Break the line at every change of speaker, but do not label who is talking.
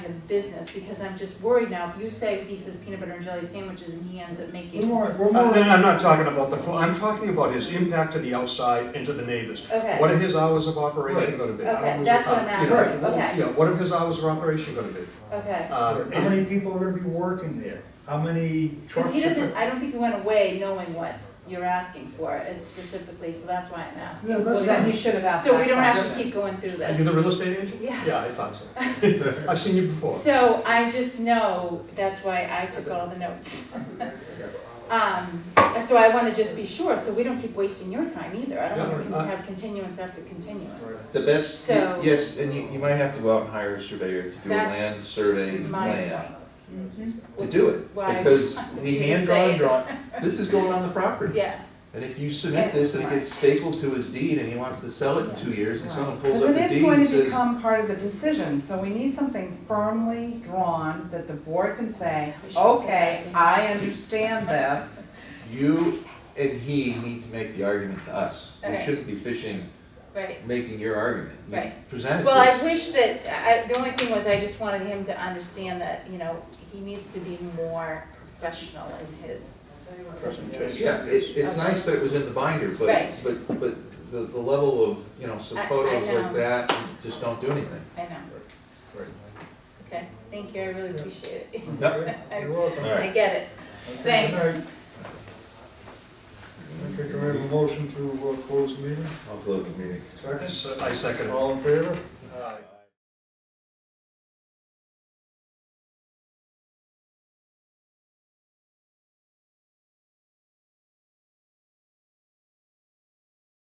business, because I'm just worried now, if you say he says peanut butter and jelly sandwiches and he ends up
We're
making.
more, we're
Oh,
Uh,
more.
and I'm not talking about the, fu- I'm talking about his impact to the outside and to the neighbors.
Okay.
What are his hours of operation gonna be?
Okay,
How was
that's
it-
what
uh,
I'm
you know,
asking. Okay.
Yeah, what are his hours of operation gonna be?
Okay,
Uh,
How many people are gonna be working there? How many
cause
trucks?
he
are-
doesn't, I don't think he went away knowing what you're asking for uh, specifically, so that's why I'm
Yeah,
asking.
that's
So then
fine.
you should have asked that
So we don't
question.
have to keep going through
Are you the
this.
real estate agent?
Yeah.
Yeah, I thought so. I've seen you before.
So I just know, that's why I took all the notes. Um, so I wanna just be sure, so we don't keep wasting your time either, I don't wanna
Yeah,
con-
uh,
have continuance after continuance.
The best,
So-
yes, and you, you might have to go out and hire a surveyor to do a
That's
land survey
My
plan.
point. Mhm.
To
Which
do
is
it,
why-
because
She
the
was
hand drawn
saying.
draw, this is going on the property.
Yeah,
And if you submit this and it gets stapled to his deed and he wants to sell it in two years and someone pulls
Because
up
it
the
is
deed and
going to
says,
become part of the decision, so we need something firmly drawn that the board can say,
We should say
okay,
that too.
I understand this.
you and he need to make the argument to us. We
Okay.
shouldn't be fishing,
right.
making your argument. You
Right.
Present it
Well,
to
I
us.
wish that, I, the only thing was I just wanted him to understand that, you know, he needs to be more professional in his presentation.
Yeah, it, it's nice that it was in the binder, but,
Right.
but, but the, the level of, you know, some
I- I
photos
know.
like that, just don't do anything.
I know, okay, thank you, I really appreciate it.
Yep.
You're welcome.
All right.
I get it. Thanks.
All right. Okay, can we have a motion to uh, close the meeting?
I'll close the meeting.
Second?
So uh, I second it.
All in favor?
Uh,